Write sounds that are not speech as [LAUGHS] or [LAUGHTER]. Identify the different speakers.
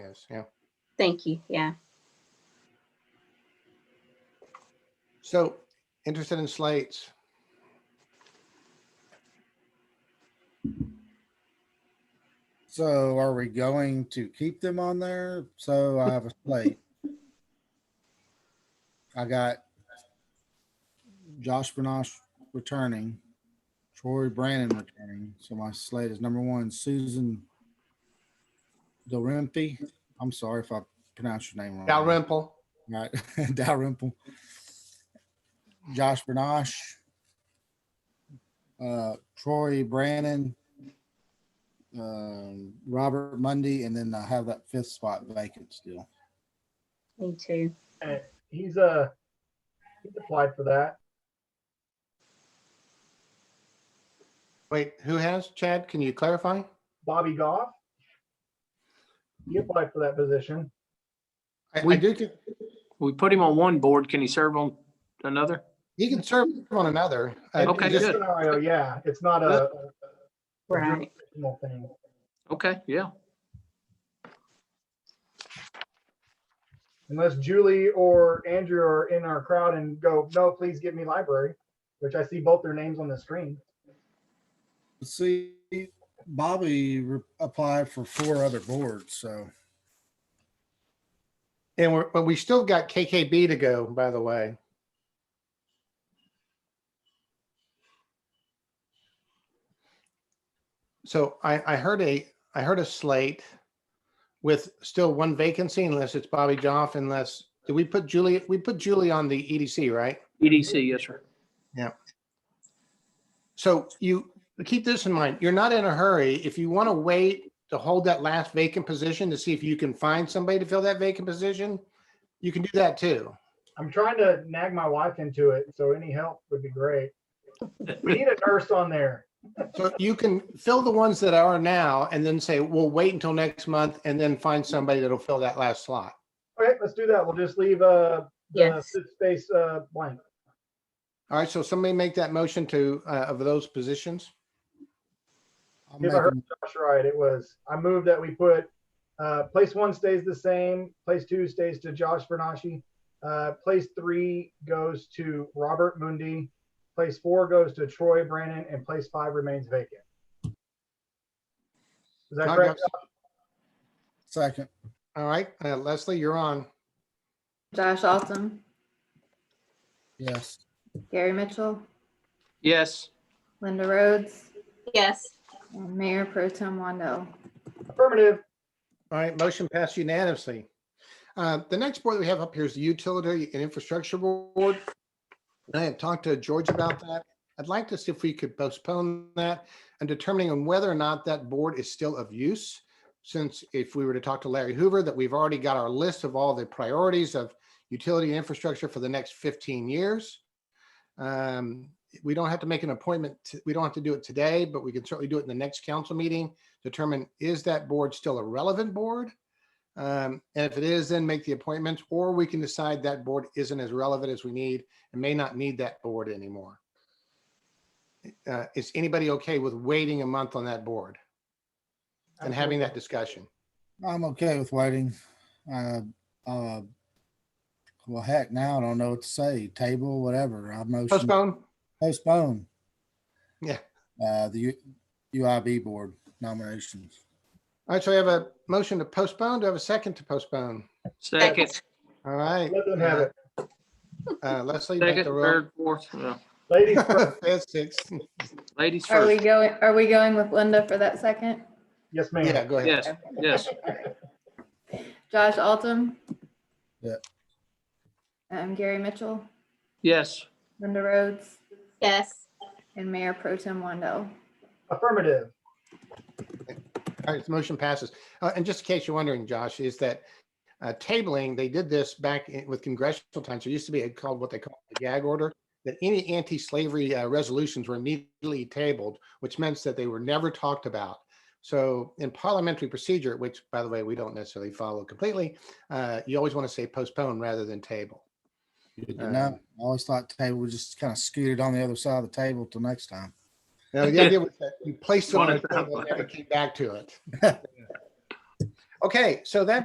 Speaker 1: is. Yeah.
Speaker 2: Thank you. Yeah.
Speaker 1: So interested in slates?
Speaker 3: So are we going to keep them on there? So I have a slate. I got Josh Benosh returning, Troy Brandon returning. So my slate is number one, Susan Dalrympe. I'm sorry if I pronounced your name wrong.
Speaker 4: Mm-hmm.
Speaker 1: Dalrymple.
Speaker 3: Right, [LAUGHS] Dalrymple. Josh Bernash. Uh, Troy Brannon. Um, Robert Mundy, and then I have that fifth spot vacant still.
Speaker 2: Me too.
Speaker 5: He's uh he's applied for that.
Speaker 1: Wait, who has? Chad, can you clarify?
Speaker 5: Bobby Goff. He applied for that position.
Speaker 1: I, I
Speaker 4: We-
Speaker 1: do, think
Speaker 4: We put him on one board. Can he serve on another?
Speaker 1: he can serve on another. I-
Speaker 4: Okay,
Speaker 1: just-
Speaker 4: good.
Speaker 5: Scenario, yeah, it's not a a
Speaker 2: Right.
Speaker 5: jurisdictional thing.
Speaker 4: Okay, yeah.
Speaker 5: Unless Julie or Andrew are in our crowd and go, no, please give me library, which I see both their names on the screen.
Speaker 3: See, Bobby re- applied for four other boards, so
Speaker 1: And we're, but we still got KKB to go, by the way. So I, I heard a, I heard a slate with still one vacancy unless it's Bobby Joff unless, did we put Julie, we put Julie on the EDC, right?
Speaker 4: EDC, E yes, sir.
Speaker 1: So you keep this in mind. You're not in a hurry. If you want to wait to hold that last vacant position to see if you can find somebody to fill that vacant position, you can do that too.
Speaker 5: I'm trying to nag my wife into it, so any help would be great. We need a nurse on there.
Speaker 1: So you can fill the ones that are now and then say, we'll wait until next month and then find somebody that'll fill that last slot.
Speaker 5: Okay, let's do that. We'll just leave uh the
Speaker 2: Yes.
Speaker 5: fifth space uh blank.
Speaker 1: All right, so somebody make that motion to, uh, of those positions.
Speaker 3: I'll
Speaker 5: If
Speaker 3: make
Speaker 5: I heard
Speaker 3: a-
Speaker 5: Josh right, it was, I moved that we put, uh, place one stays the same, place two stays to Josh Bernashi. Uh, place three goes to Robert Mundy, place four goes to Troy Brandon, and place five remains vacant. Is that correct?
Speaker 3: second.
Speaker 1: All right, uh, Leslie, you're on.
Speaker 6: Josh Altum,
Speaker 3: Yes,
Speaker 6: Gary Mitchell,
Speaker 4: Yes,
Speaker 6: Linda Rhodes,
Speaker 2: Yes.
Speaker 6: and Mayor Pro Tem Wando.
Speaker 5: Affirmative.
Speaker 1: All right, motion passed unanimously. Uh, The next board that we have up here is the Utility and Infrastructure Board. And I had talked to George about that. I'd like to see if we could postpone that and determining on whether or not that board is still of use. Since if we were to talk to Larry Hoover, that we've already got our list of all the priorities of utility and infrastructure for the next 15 years. Um, We don't have to make an appointment, t- we don't have to do it today, but we can certainly do it in the next council meeting determine is that board still a relevant board? Um, And if it is, then make the appointments, or we can decide that board isn't as relevant as we need and may not need that board anymore. Uh, Is anybody okay with waiting a month on that board and having that discussion?
Speaker 3: I'm okay with waiting. Uh, uh, well, heck, now I don't know what to say. Table, whatever. I motion.
Speaker 1: Postpone?
Speaker 3: postpone.
Speaker 1: Yeah.
Speaker 3: Uh, the U- UIB board nominations.
Speaker 1: All right, so we have a motion to postpone. Do I have a second to postpone?
Speaker 4: second,
Speaker 1: All right.
Speaker 5: Let them have it.
Speaker 1: Uh, Leslie,
Speaker 4: second,
Speaker 1: back to roll.
Speaker 4: third, fourth, yeah.
Speaker 1: [LAUGHS]
Speaker 5: Ladies, first.
Speaker 1: Fifth, sixth.
Speaker 4: ladies
Speaker 6: Are we
Speaker 4: first.
Speaker 6: going, are we going with Linda for that second?
Speaker 5: yes,
Speaker 1: Yeah,
Speaker 5: ma'am.
Speaker 1: go ahead.
Speaker 4: Yes, yes,
Speaker 6: Josh Altum?
Speaker 3: Yeah.
Speaker 6: Um, Gary Mitchell,
Speaker 4: yes.
Speaker 6: Linda Rhodes,
Speaker 2: Yes.
Speaker 6: and Mayor Pro Tem Wando.
Speaker 5: Affirmative.
Speaker 1: All right, the motion passes. Uh, And just in case you're wondering, Josh, is that uh, tabling, they did this back in- with congressional times. There used to be a called what they call the gag order, that any anti-slavery uh, resolutions were immediately tabled, which meant that they were never talked about. So in parliamentary procedure, which by the way, we don't necessarily follow completely, uh, you always want to say postpone rather than table.
Speaker 3: Good to
Speaker 1: Uh,
Speaker 3: know. I always thought table was just kind of scooted on the other side of the table till next time.
Speaker 1: Now, the idea was that you placed it on
Speaker 4: One
Speaker 1: a
Speaker 4: at a
Speaker 1: table and
Speaker 4: time.
Speaker 1: never came back to it. Okay, so that